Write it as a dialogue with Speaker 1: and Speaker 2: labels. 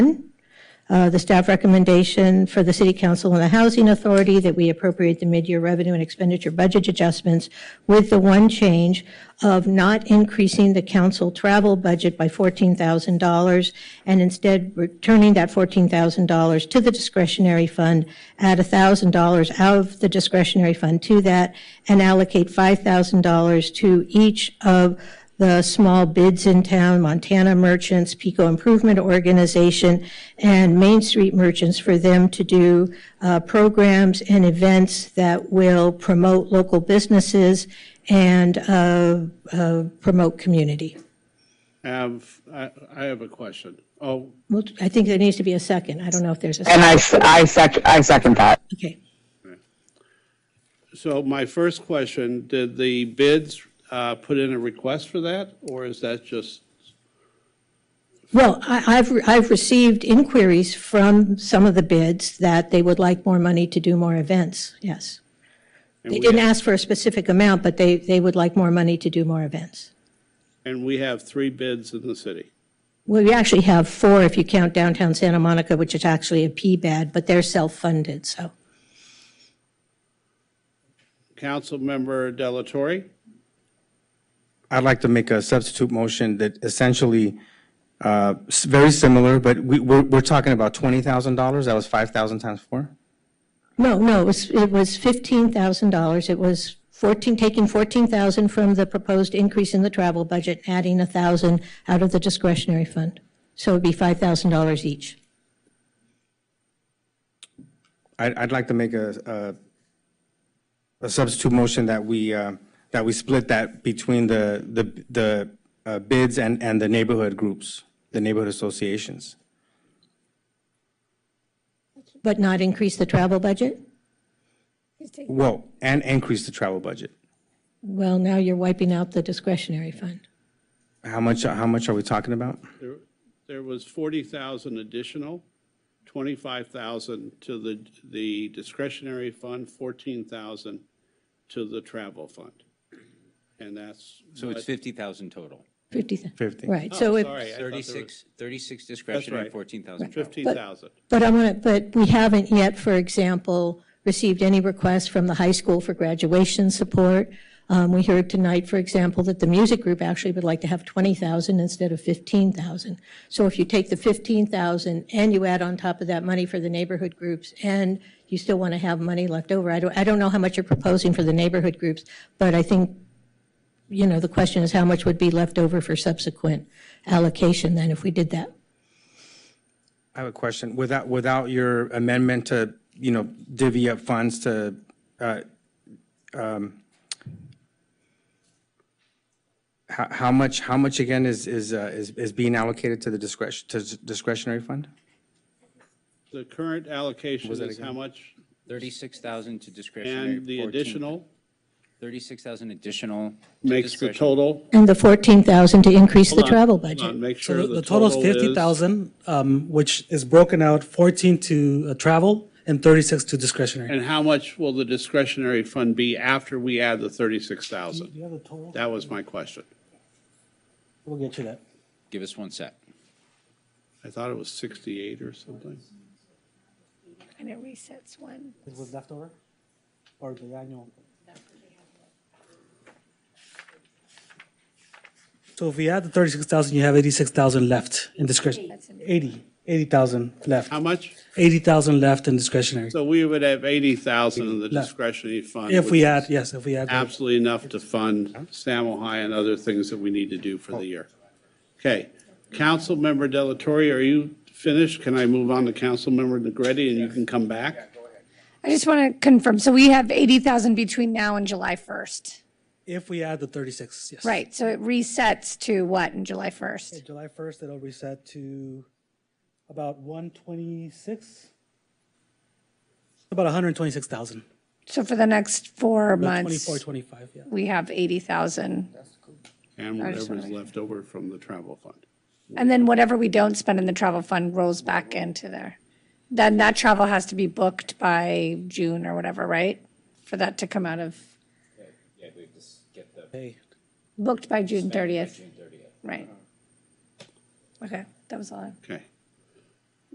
Speaker 1: uh, the staff recommendation for the City Council and the Housing Authority that we appropriate the mid-year revenue and expenditure budget adjustments with the one change of not increasing the council travel budget by $14,000 and instead returning that $14,000 to the discretionary fund, add $1,000 out of the discretionary fund to that, and allocate $5,000 to each of the small bids in town, Montana Merchants, Pico Improvement Organization, and Main Street Merchants for them to do uh, programs and events that will promote local businesses and uh, uh, promote community.
Speaker 2: Have, I, I have a question. Oh,
Speaker 1: Well, I think there needs to be a second. I don't know if there's a
Speaker 3: And
Speaker 1: second.
Speaker 3: I, s- I sec, I second that.
Speaker 1: Okay.
Speaker 2: so my first question, did the bids uh, put in a request for that? Or is that just,
Speaker 1: Well, I- I've, re- I've received inquiries from some of the bids that they would like more money to do more events, yes. They didn't ask for a specific amount, but they, they would like more money to do more events.
Speaker 2: and we have three bids in the city?
Speaker 1: Well, we actually have four if you count downtown Santa Monica, which is actually a P-BAD, but they're self-funded, so.
Speaker 2: Councilmember Delatorre?
Speaker 4: I'd like to make a substitute motion that essentially, uh, s- very similar, but we, we're, we're talking about twenty thousand dollars, that was five thousand times four?
Speaker 1: No, no, it was, it was $15,000. It was 14, taking 14,000 from the proposed increase in the travel budget, adding 1,000 out of the discretionary fund. So it'd be $5,000 each.
Speaker 4: I'd, I'd like to make a, a, a substitute motion that we, uh, that we split that between the, the, the uh, bids and, and the neighborhood groups, the neighborhood associations.
Speaker 1: But not increase the travel budget?
Speaker 4: Well, and increase the travel budget.
Speaker 1: Well, now you're wiping out the discretionary fund.
Speaker 4: How much, how much are we talking about?
Speaker 2: There there was 40,000 additional, 25,000 to the the discretionary fund, 14,000 to the travel fund. And that's,
Speaker 5: So it's 50,000 total.
Speaker 1: 50,000.
Speaker 4: 50.
Speaker 1: Right, so it,
Speaker 2: Oh, sorry, I thought there was
Speaker 5: 36, 36 discretionary,
Speaker 2: right.
Speaker 5: 14,000 travel.
Speaker 2: 15,000.
Speaker 1: But I'm gonna, but we haven't yet, for example, received any requests from the high school for graduation support. Um, we heard tonight, for example, that the music group actually would like to have 20,000 instead of 15,000. So if you take the 15,000 and you add on top of that money for the neighborhood groups and you still want to have money left over, I don't, I don't know how much you're proposing for the neighborhood groups, but I think, you know, the question is how much would be left over for subsequent allocation then if we did that?
Speaker 4: I have a question. Without, without your amendment to, you know, divvy up funds to, uh, um, how, how much, how much again is, is, uh, is, is being allocated to the discretion, to discretionary fund?
Speaker 2: The current allocation is how much?
Speaker 5: 36,000 to discretionary.
Speaker 2: And the
Speaker 5: 14
Speaker 2: additional
Speaker 5: 36,000 additional. to
Speaker 2: makes the
Speaker 5: discretion-
Speaker 2: total?
Speaker 1: And the 14,000 to increase the
Speaker 2: Hold on,
Speaker 1: travel
Speaker 2: hold on,
Speaker 1: budget.
Speaker 2: Make
Speaker 6: So
Speaker 2: sure
Speaker 6: the-
Speaker 2: the
Speaker 6: the total is
Speaker 2: total is.
Speaker 6: 50,000, um, which is broken out 14 to uh, travel and 36 to discretionary.
Speaker 2: And how much will the discretionary fund be after we add the 36,000?
Speaker 6: have the total?
Speaker 2: That was my question.
Speaker 6: We'll get you that.
Speaker 5: Give us one sec.
Speaker 2: I thought it was 68 or something.
Speaker 7: And it resets one.
Speaker 6: It was leftover or the annual? So if we add the 36,000, you have 86,000 left in discretionary. 80, 80,000 left,
Speaker 2: How much?
Speaker 6: 80,000 left in discretionary.
Speaker 2: So we would have 80,000 in the
Speaker 6: Left.
Speaker 2: discretionary fund.
Speaker 6: If
Speaker 2: which
Speaker 6: we
Speaker 2: is
Speaker 6: add, yes, if we add. that.
Speaker 2: Absolutely enough to fund Sam Ojai and other things that we need to do for the year. Okay. Councilmember Delatorre, are you finished? Can I move on to Councilmember Negretti and you can come back?
Speaker 7: I just want to confirm, so we have 80,000 between now and July 1st,
Speaker 6: If we add the 36, yes.
Speaker 7: right? So it resets to what in July 1st?
Speaker 6: July 1st, it'll reset to about 126, about 126,000.
Speaker 7: So for the next four
Speaker 6: About
Speaker 7: months,
Speaker 6: 24, 25, yeah.
Speaker 7: we have 80,000.
Speaker 2: And
Speaker 7: just
Speaker 2: whatever's
Speaker 7: wanna-
Speaker 2: left over from the travel fund.
Speaker 7: And then whatever we don't spend in the travel fund rolls back into there. Then that travel has to be booked by June or whatever, right? For that to come out of,
Speaker 6: Hey,
Speaker 7: booked by June 30th. Right. Okay, that was all. I-
Speaker 2: Okay.